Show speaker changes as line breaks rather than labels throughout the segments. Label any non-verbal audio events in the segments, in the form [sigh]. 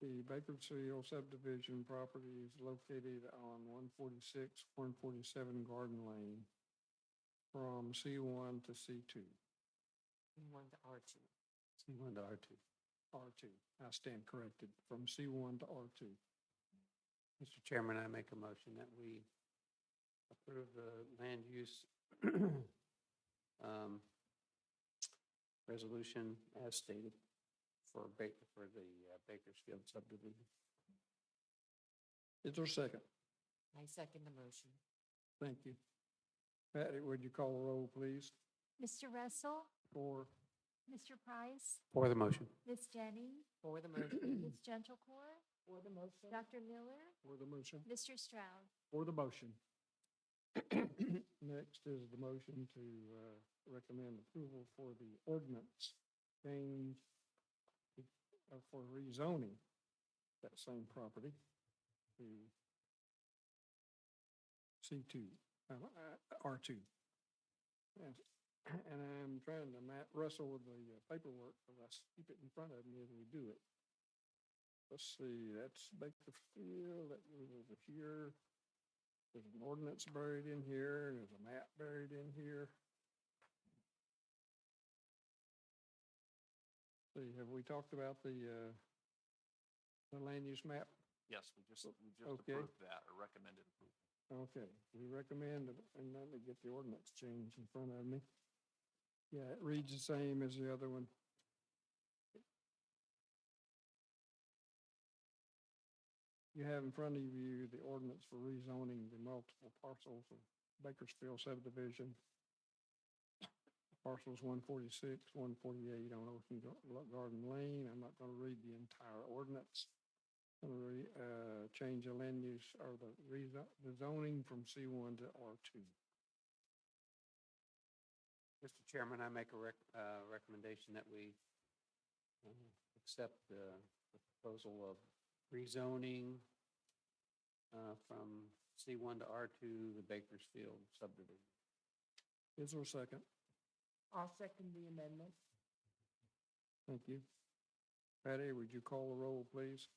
The Bakersfield subdivision property is located on one forty-six, one forty-seven Garden Lane from C one to C two,
One to R two.
C one to R two, R two. I stand corrected, from C one to R two.
Mr. Chairman, I make a motion that we approve the land use [clears throat] um, resolution as stated for Baker, for the uh, Bakersfield subdivision.
Is there a second?
I second the motion.
Thank you. Patty, would you call a roll, please,
Mr. Russell,
for
Mr. Price,
For the motion.
Ms. Jenny,
For the motion.
Ms. Gentlecore,
For the motion.
Dr. Miller,
for the motion?
Mr. Stroud.
For the motion. [clears throat] Next is the motion to uh, recommend approval for the ordinance change uh, for rezoning that same property to C2, uh, uh, R2. And [clears throat] and I'm trying to ma- wrestle with the uh, paperwork, but I s- keep it in front of me as we do it. Let's see, that's Bakersfield, that was over here. There's an ordinance buried in here, and there's a map buried in here. See, have we talked about the, uh, the land use map?
Yes, we just, we just
Okay.
approved that or recommended approval.
Okay, we recommend, and let me get the ordinance change in front of me. Yeah, it reads the same as the other one. You have in front of you the ordinance for rezoning the multiple parcels of Bakersfield subdivision. Parcels one forty-six, one forty-eight on Ocean Gar- Garden Lane. I'm not gonna read the entire ordinance re, uh, change the land use or the rezo- the zoning from C one to R two.
Mr. Chairman, I make a rec, uh, recommendation that we uh, accept the the proposal of rezoning uh, from C1 to R2, the Bakersfield subdivision.
Is there a second?
I'll second the amendment.
Thank you. Patty, would you call the roll, please?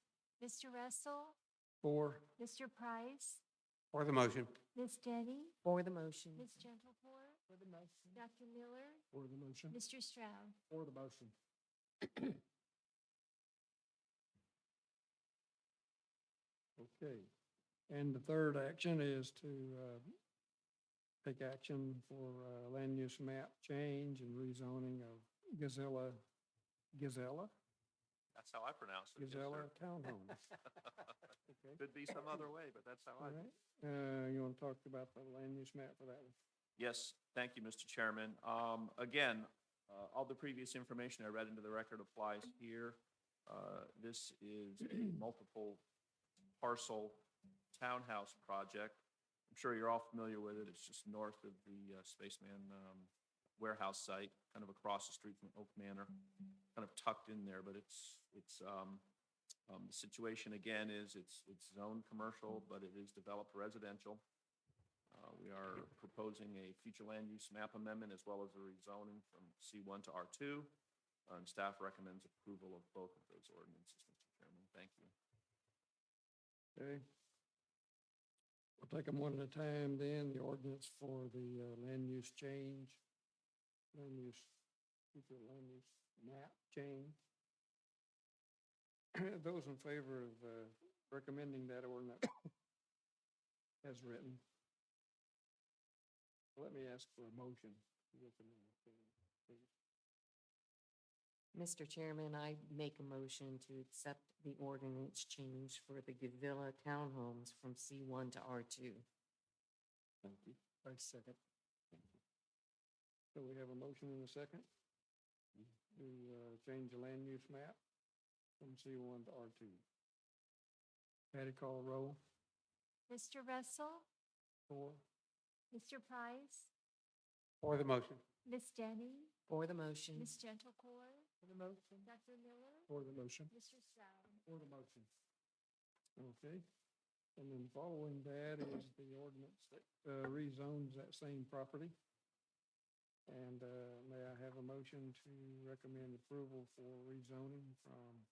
Mr. Russell,
Four,
Mr. Price,
For the motion.
Ms. Jenny,
For the motion.
Ms. Gentlecore,
For the motion.
Dr. Miller,
for the motion.
Mr. Stroud.
For the motion. Okay, and the third action is to uh, take action for uh, land use map change and rezoning of Gazella, Gazella,
That's how I pronounce it. yes, sir.
Gazella
[laughs]
Townhomes. Okay.
Could be some other way, but that's how
All
I.
right, uh, you want to talk about the land use map for that one?
Yes, thank you, Mr. Chairman. Um, Again, uh, all the previous information I read into the record applies here. Uh, This is a multiple parcel townhouse project. I'm sure you're all familiar with it. It's just north of the uh, Spaceman um, warehouse site, kind of across the street from Oak Manor, kind of tucked in there, but it's, it's, um, um, the situation again is it's, it's zoned commercial, but it is developed residential. Uh, We are proposing a future land use map amendment as well as a rezoning from C1 to R2. And staff recommends approval of both of those ordinances, Mr. Chairman. Thank you.
Okay. We'll take them one at a time then, the ordinance for the uh, land use change, land use, future land use map change. [coughs] Those in favor of uh, recommending that ordinance [coughs] as written. Let me ask for a motion.
Mr. Chairman, I make a motion to accept the ordinance change for the Gavilla Townhomes from C one to R two.
Thank you. I second. So we have a motion and a second to uh, change the land use map from C1 to R2. Patty call roll
Mr. Russell,
for,
Mr. Price,
For the motion.
Ms. Jenny,
For the motion.
Ms. Gentlecore,
For the motion.
Dr. Miller,
for the motion.
Mr. Stroud.
For the motion. Okay. And then following that is the ordinance that uh, rezones that same property. And uh, may I have a motion to recommend approval for rezoning from